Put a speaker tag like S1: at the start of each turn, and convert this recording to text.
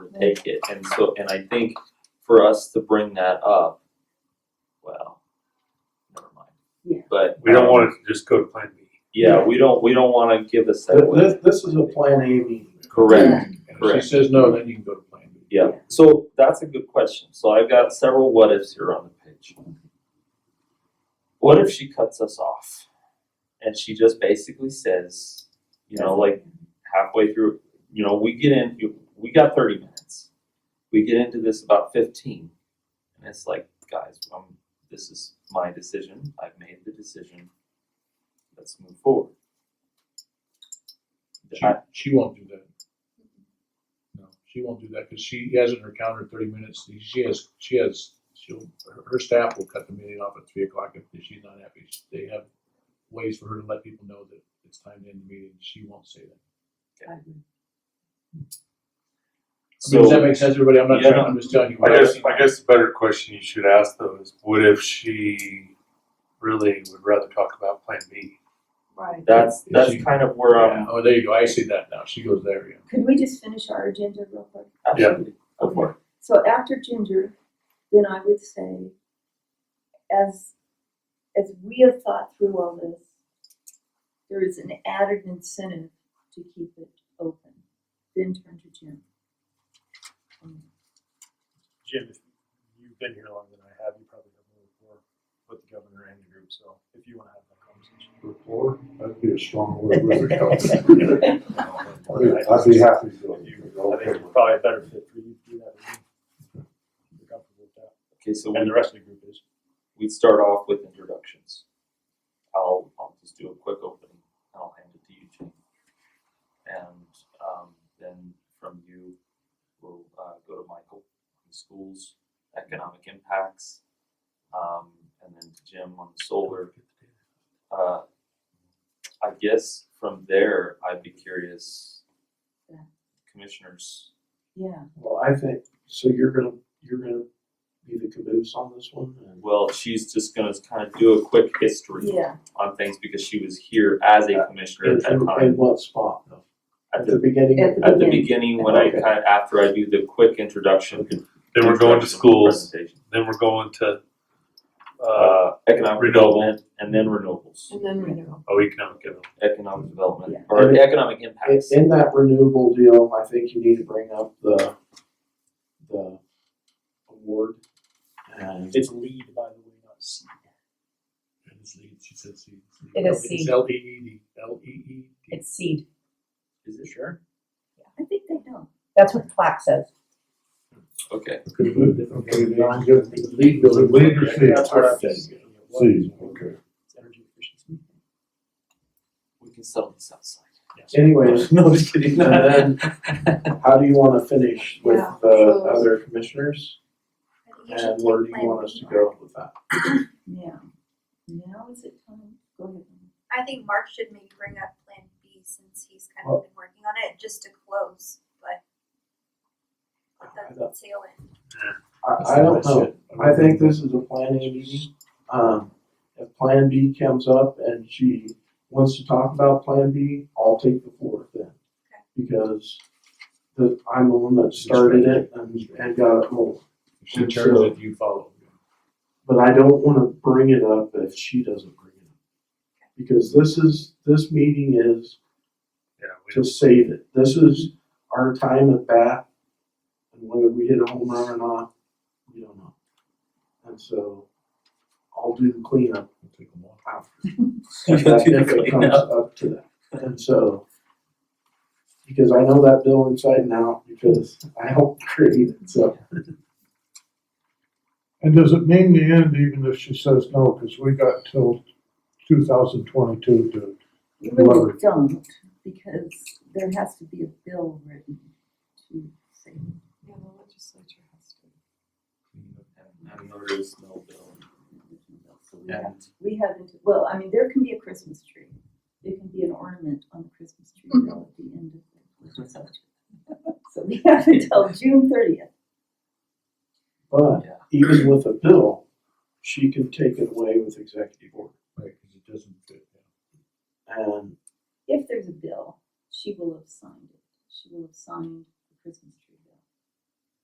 S1: and take it. And so, and I think for us to bring that up, well, never mind.
S2: Yeah.
S1: But.
S3: We don't
S1: um,
S3: want it to just go to plan B.
S1: Yeah, we don't, we don't wanna give a
S4: Th-
S1: segue.
S4: This, this is a Plan A meeting.
S1: Correct,
S4: And If
S1: correct.
S4: she says no, then you can go to Plan B.
S1: yeah. So that's a good question. So I've got several what ifs here on the page. What if she cuts us off? And she just basically says, you know, like, halfway through, you know, we get in, you- we got 30 minutes. We get into this about 15. And it's like, guys, um, this is my decision. I've made the decision. Let's move forward.
S4: She,
S1: I-
S4: she won't do that. No, she won't do that because she has in her calendar thirty minutes. She has, she has, she'll, her, her staff will cut the meeting off at three o'clock if she's not happy. They have ways for her to let people know that it's time to end the meeting. She won't say that. I mean, does that
S1: so,
S4: make sense, everybody? I'm not
S1: Yeah.
S4: trying, I'm just telling you.
S3: I
S4: what
S3: guess,
S4: I'm-
S3: I guess the better question you should ask though is, what if she really would rather talk about plan B?
S2: Right.
S1: that's
S4: Is
S1: that's
S4: she-
S1: kind of where
S4: Yeah,
S1: I'm
S4: Oh, there you go. I see that now. She goes there, yeah.
S2: Could we just finish our agenda real quick?
S3: Yeah.
S1: absolutely go for it.
S2: So after Ginger, then I would say, as, as we have thought through all this, there is an added incentive to keep it open, then turn to Jim. Um,
S5: Jim, if you've been here longer than I have, you probably have more rapport with the governor and the group, so if you wanna have that conversation.
S6: Rapport, that'd be a strong word. wouldn't it? I'd be happy to. go.
S5: If you- I think it's probably a better fit for you to do that. if You're comfortable with that,
S1: Okay, so
S5: and
S1: we
S5: the rest of the group is.
S1: we start off with introductions. I'll I'll just do a quick opening. and I'll hand it to you, Jane. And um, then from you, we'll uh, go to Michael on the schools, economic impacts, um, and then to Jim on the solar. Uh, I guess from there, I'd be curious,
S2: Yeah.
S1: commissioners.
S2: Yeah,
S6: Well, I think, so you're gonna, you're gonna be the caboose on this one and.
S1: Well, she's just going to kind of do a quick history
S2: yeah,
S1: on things because she was here as a commissioner at that
S6: In,
S1: time.
S6: in what spot? though?
S1: at
S6: At the
S1: the,
S6: beginning?
S2: At the
S1: at the
S2: beginning.
S1: beginning, when I
S6: Okay.
S1: kind of, after I do the quick introduction.
S3: Then we're going to
S1: introduction
S3: schools,
S1: presentation,
S3: then we're going to, uh,
S1: Uh, economic
S3: renewable.
S1: development and then renewables,
S2: and then renewal.
S3: oh, economic development.
S1: economic development,
S2: Yeah.
S1: or the economic
S6: In,
S1: impacts.
S6: in that renewable deal, I think you need to bring up the, the award. And
S5: It's lead, by the way, not seed.
S4: And it's lead, she said C.
S7: It is
S4: It's
S7: C.
S4: L E E D, L E E D.
S7: It's seed.
S5: Is it sure?
S2: I think they know.
S7: That's what plaque says.
S1: Okay,
S6: Could move it.
S4: Okay, then I'm good. Lead building.
S6: Lead or seed?
S5: That's what I'm just. you know, what is
S6: Seed,
S5: it?
S6: okay.
S5: It's energy efficiency.
S1: we can settle this outside.
S6: Anyways,
S1: No, I'm just kidding.
S6: And how do you wanna finish with
S2: Yeah,
S6: the
S2: so-
S6: other commissioners? And where do you want us to go with that?
S2: Now, now is it time? Go ahead.
S8: I think Mark should maybe bring up Plan B since he's kind of been working on it just to close, but
S6: I
S8: let the
S6: don't-
S8: tail end.
S6: I, I don't know. I think this is a plan A meeting. Um, if plan B comes up and she wants to talk about plan B, I'll take the floor then. Because the, I'm the one that started it and, and got it rolling.
S4: She turns it, you follow.
S6: But I don't wanna bring it up if she doesn't bring it up. Because this is, this meeting is
S3: Yeah, we
S6: to save it. This is our time at bat. And whether we hit a home run or not, we don't know. And so I'll do the cleanup
S4: We'll take them all.
S6: after.
S1: You'll
S6: If that-
S1: do the
S6: if it comes
S1: cleanup.
S6: up to that. And so, because I know that bill inside and out because I helped create it, so.
S9: And does it mean the end even if she says no, because we got till two thousand twenty-two to,
S2: You really
S9: Whoever.
S2: don't, because there has to be a bill written to say. Yeah, the legislature has to.
S1: And there is no bill.
S2: So we have,
S1: And
S2: we have, into- well, I mean, there can be a Christmas tree. There can be an ornament on the Christmas tree bill at the end of the legislature. So we have until June thirtieth.
S6: But
S1: Yeah.
S6: even with a bill, she can take it away with executive order.
S4: Right, because it doesn't fit.
S6: And
S2: If there's a bill, she will have signed it. She will have signed the Christmas tree